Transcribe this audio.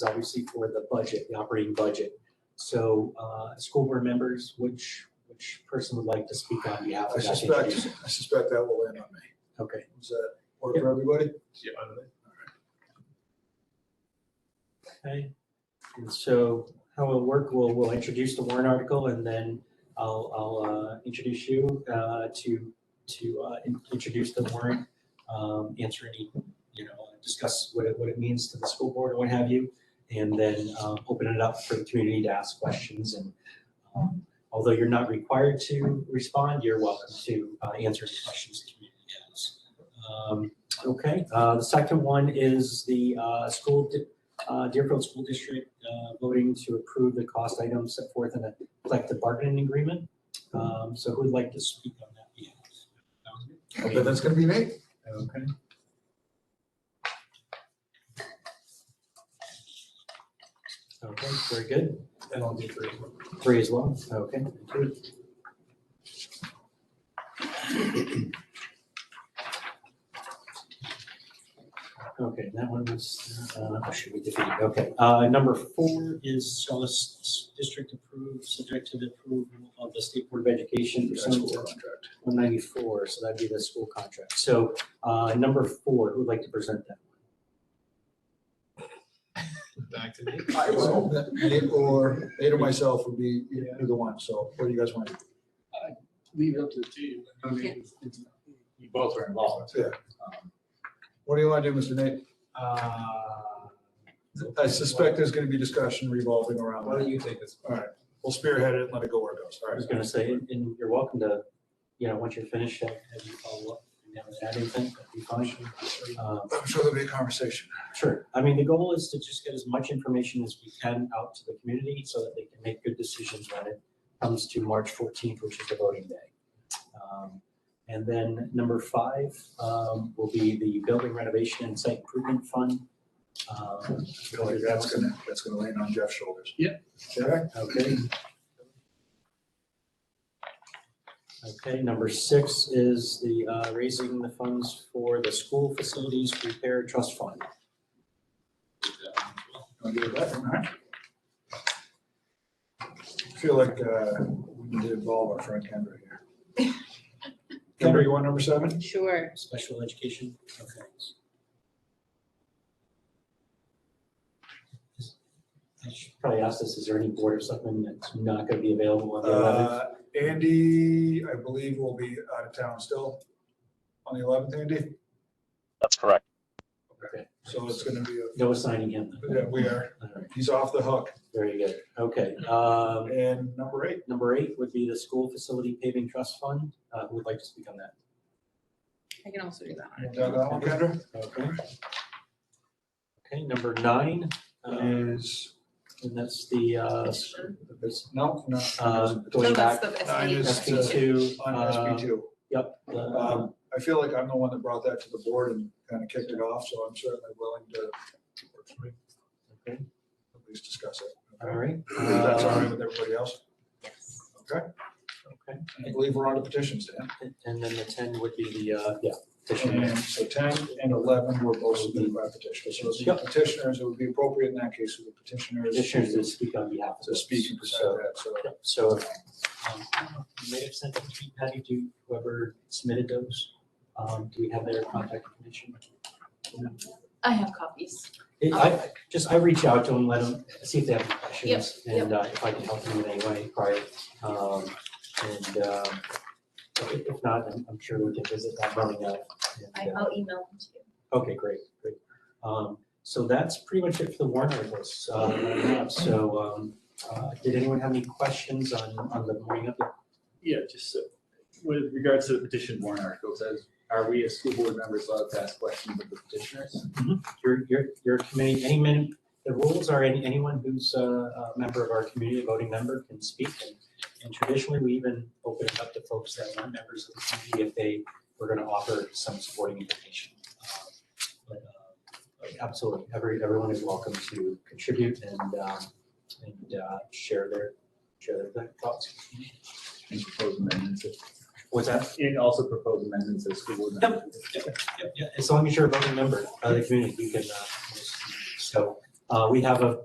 obviously for the budget, the operating budget. So, uh, school board members, which, which person would like to speak on behalf of I that? suspect, introduction? I suspect that will land on me. Okay, Is that work for everybody? Yeah. okay. And so how it'll work, we'll, we'll introduce the warrant article and then I'll, I'll, uh, introduce you, uh, to, to, uh, in- introduce the warrant, um, answer any, you know, discuss what it, what it means to the school board or what have you. And then, um, open it up for the community to ask questions and, um, although you're not required to respond, you're welcome to, uh, answer any questions the community has. Um, okay, uh, the second one is the, uh, school, di- uh, Deerfield School District uh, voting to approve the cost items set forth in the collective bargaining agreement. Um, So who'd like to speak on that? Yeah. That was I bet that's gonna be me. it? Okay. Okay, very good. And I'll do three. as well. Three as well. Okay. good. Okay, that one was, uh, should we defeat? Okay. Uh, Number four is Scholar S- District approved, subject to the approval of the State Board of Education That's what pursuant to we're on track. 194, so that'd be the school contract. So uh, number four, who'd like to present that? Back to me. I would hope that Nate or, Nate or myself would be either one, so what do you guys want to do? leave it up to the team. I mean, it's- it's- You both are involved. Yeah. Um, What do you want to do, Mr. Nate? uh, I suspect there's gonna be discussion revolving around Why don't that. you take this? All right, we'll spearhead it and let it go where it goes. All I right. was gonna say, and- and you're welcome to, you know, once you're finished, have have you follow up and have it add anything, that'd be fine. Um, I'm sure there'll be a conversation. Sure, I mean, the goal is to just get as much information as we can out to the community so that they can make good decisions when it comes to March fourteenth, which is the voting day. Um, And then number five um, will be the building renovation and site improvement fund. Um, I feel like that's gonna, that's gonna land on Jeff's shoulders. Yep. Okay, Okay. Okay, number six is the uh, raising the funds for the school facilities repair trust fund. I'll give it that one, all right. I Feel like, uh, we need to involve our friend Kendra here. Kendra, you want number seven? Sure. Special education, okay. I should probably ask this, is there any board or something that's not gonna be available on the eleventh? Uh, Andy, I believe will be out of town still on the eleventh, Andy. That's correct. So it's gonna be, a- No assigning him. yeah, we are, All right, he's off the hook. very good, okay. Um, And number eight, number eight would be the school facility paving trust fund, uh, who would like to speak on that? I can also do that. you want to talk about that one, Okay. Okay, number nine, uh, Kendra, is, and that's the, uh, no, no. Uh, No, going that's back, the Nine SB. is, uh, SP two. On SB two. Yep. uh, Um, I feel like I'm the one that brought that to the board and kind of kicked it off, so I'm certainly willing to Okay, at least discuss it. all right. If that's all right with everybody else. Yes. Okay, Um, Okay, I believe we're on to petitions, Dan. and- and then the ten would be the, uh, yeah. petition. And so ten and eleven were both submitted by petitioners. So it's the petitioners, it would be appropriate in that case for the petitioners Petitioners to to speak on behalf of. to us. speak and present So- that, so. yep, So, um, you may have sent a tweet, Patty, to whoever submitted those. Um, do we have their contact information? I have copies. It- I, just, I reach out to them, let them, see if they have questions, Yep, yep. and uh, if I can help them in any way, prior. Um, and, um, if if not, I'm, I'm sure we can visit that running out. uh, I- I'll email them to you. Okay, great, great. Um, so that's pretty much it for the warrant articles, uh, that I have. so, um, uh, did anyone have any questions on, on the morning of the? Yeah, just so- with regards to the petition warrant articles, as, are we as school board members allowed to ask questions of the petitioners? Your, your, your committee, any minute, the rules are any, anyone who's a, a member of our community, a voting member can speak. And- And traditionally, we even open it up to folks that aren't members of the community if they were gonna offer some supporting information. Uh, But, uh, but absolutely, every, everyone is welcome to contribute and, um, and, uh, share their, share their thoughts. And propose amendments, if- What's that? and also propose amendments as school board members. Yep, yeah, As long as you're a voting member of the community, you can, uh, so, Uh, we have a